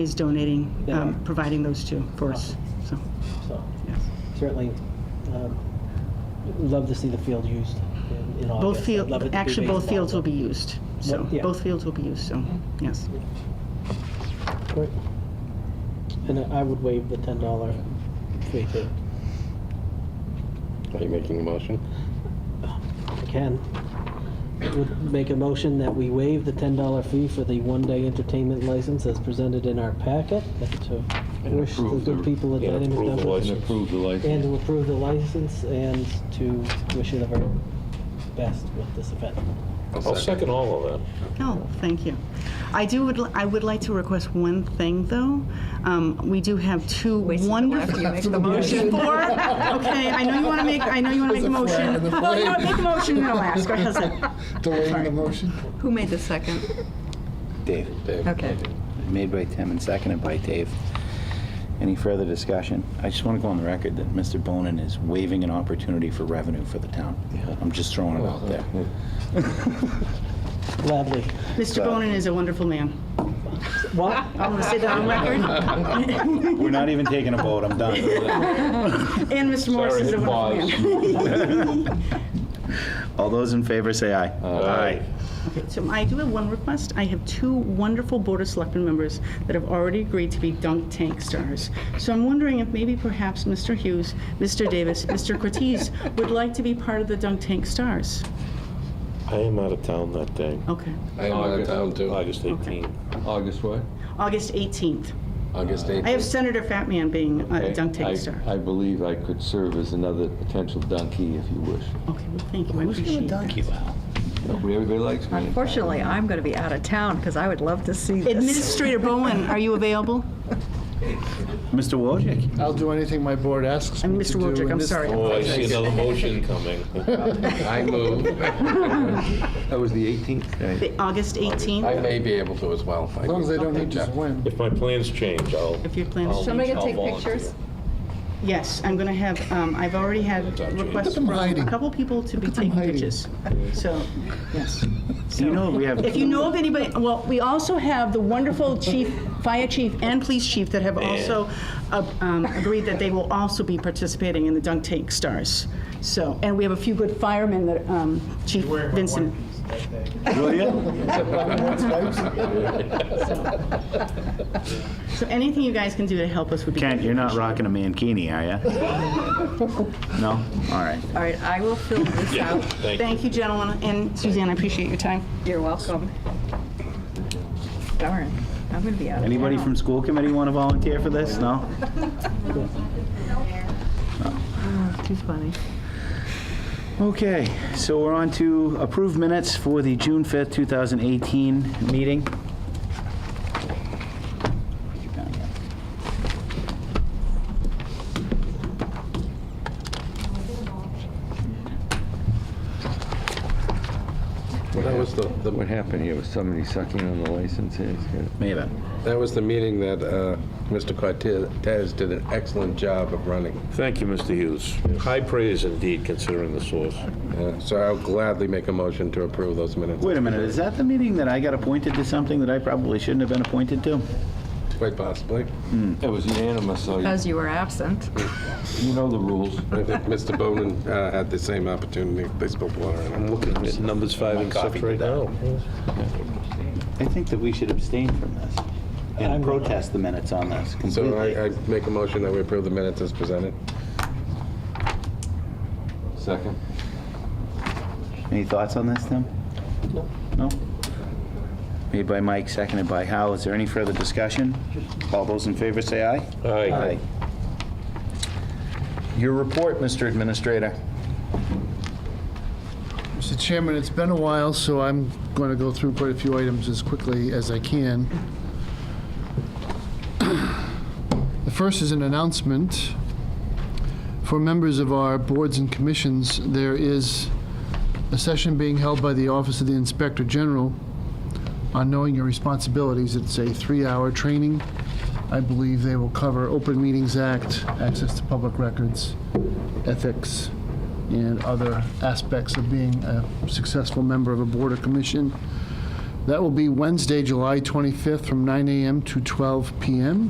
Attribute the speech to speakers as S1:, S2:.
S1: is donating,
S2: Yeah.
S1: um, providing those two for us, so,
S2: So
S1: yes.
S2: certainly, um, love to see the field used in- in August.
S1: Both
S2: I'd
S1: field,
S2: love it to be
S1: actually, both
S2: baseball,
S1: fields will
S2: but-
S1: be used, so,
S2: Yeah.
S1: both fields will be used, so, yes.
S2: Great. And I would waive the ten dollar fee too.
S3: Are you making a motion?
S2: I can. Would make a motion that we waive the ten dollar fee for the one-day entertainment license as presented in our packet. and To wish the
S4: approve
S2: good
S4: the-
S2: people at
S3: and
S2: Dynamic
S3: approve the
S2: Dumplings.
S3: license.
S4: And approve the
S2: And
S4: license.
S2: to approve the license and to wish you the very best with this event.
S4: I'll second all of that.
S1: Oh, thank you. I do, would I would like to request one thing, though. Um, We do have two
S5: Wait until
S1: wonderful...
S5: after you make the motion.
S1: Four? Okay, I know you want to make, I know you want to make a
S6: There's a flag
S1: motion.
S6: in the
S1: Well, you know, what,
S6: parade.
S1: make a motion, and I'll ask, how's that?
S6: Delaying the motion?
S5: Who made the second?
S7: Dave.
S5: Okay.
S7: Made by Tim and seconded by Dave. Any further discussion? I just want to go on the record that Mr. Bonin is waiving an opportunity for revenue for the town. I'm just throwing it out there.
S4: uh,
S2: Gladly.
S1: Mr. Bonin is a wonderful man.
S2: What?
S1: I want to say that on record.
S7: We're not even taking a vote, I'm done.
S1: And Mr. Morris
S4: Sorry,
S1: is a wonderful
S4: pause.
S1: man.
S7: All those in favor say aye.
S4: Aye.
S1: So I do have one request. I have two wonderful Board of Selectmen members that have already agreed to be dunk tank stars. So I'm wondering if maybe perhaps Mr. Hughes, Mr. Davis, Mr. Cortez would like to be part of the dunk tank stars.
S4: I am out of town that day.
S1: Okay.
S8: I am out of town too.
S4: August 18th.
S8: August what?
S1: August 18th.
S8: August
S1: I have
S8: 8th.
S1: Senator Fatman being a dunk
S8: I-
S1: tank star.
S8: I believe I could serve as another potential donkey if you wish.
S1: Okay, well, thank you. I appreciate that.
S8: Nobody- Everybody likes me.
S5: Unfortunately, I'm going to be out of town because I would love to see this.
S1: Administrator Bowen, are you available?
S7: Mr. Wojcik?
S6: I'll do anything my board asks
S1: And
S6: me to
S1: Mr.
S6: do.
S1: Wojcik,
S6: in
S1: I'm
S6: this-
S1: sorry.
S4: Oh, I see another motion coming.
S8: I move.
S3: That was the 18th.
S1: The August
S8: I
S1: 18th,
S8: may be able to as well.
S6: As long as they don't need to win.
S4: If my plans change, I'll.
S1: if your plans
S4: I'll-
S9: Somebody gonna
S4: I'll
S9: take
S4: volunteer.
S9: pictures?
S1: Yes, I'm going to have, um, I've already had requests
S6: them
S1: from a
S6: hiding.
S1: couple people to be taking
S6: hiding.
S1: pictures. So, yes.
S7: You know, we have,
S1: If you know of anybody, well, we also have the wonderful chief, fire chief and police chief that have also uh, um, agreed that they will also be participating in the dunk tank stars. So, and we have a few good firemen that, um, Chief Vincent.
S7: will you?
S1: So anything you guys can do to help us would be.
S7: Kent, you're not rocking a mankini, are you? No? All right.
S5: All right, I will fill this out.
S4: Thank you.
S1: Thank you, gentlemen, and Suzanne, I appreciate your time.
S5: You're welcome. Darn, I'm going to be out of town.
S7: Anybody from school committee want to volunteer for this? No?
S5: Too funny.
S7: Okay, so we're on to approved minutes for the June 5th, 2018 meeting.
S8: That was the,
S3: What happened here? Was somebody sucking on the license? here? It's good.
S7: Maybe.
S8: that was the meeting that uh, Mr. Cortez did an excellent job of running.
S4: Thank you, Mr. Hughes. High praise indeed, considering the source.
S8: Uh, So I'll gladly make a motion to approve those minutes.
S7: Wait a minute, is that the meeting that I got appointed to something that I probably shouldn't have been appointed to?
S8: Quite possibly.
S4: It was unanimous, so
S5: Because you were absent.
S4: you know the rules.
S8: I think Mr. Bowman uh, had the same opportunity. They spilled water on him.
S7: Mm-hmm.
S4: I'm looking at numbers five and six right now.
S7: I think that we should abstain from this and protest the minutes on this
S8: So
S7: completely.
S8: I, I make a motion that we approve the minutes as presented. Second.
S7: Any thoughts on this, Tim? No. No? Made by Mike, seconded by Hal. Is there any further discussion? All those in favor say aye.
S4: Aye.
S7: Your report, Mr. Administrator.
S6: Mr. Chairman, it's been a while, so I'm going to go through quite a few items as quickly as I can. The first is an announcement. For members of our boards and commissions, there is a session being held by the Office of the Inspector General on knowing your responsibilities. It's a three-hour training. I believe they will cover Open Meetings Act, access to public records, ethics, and other aspects of being a successful member of a board or commission. That will be Wednesday, July 25th, from 9 a.m. to 12 p.m.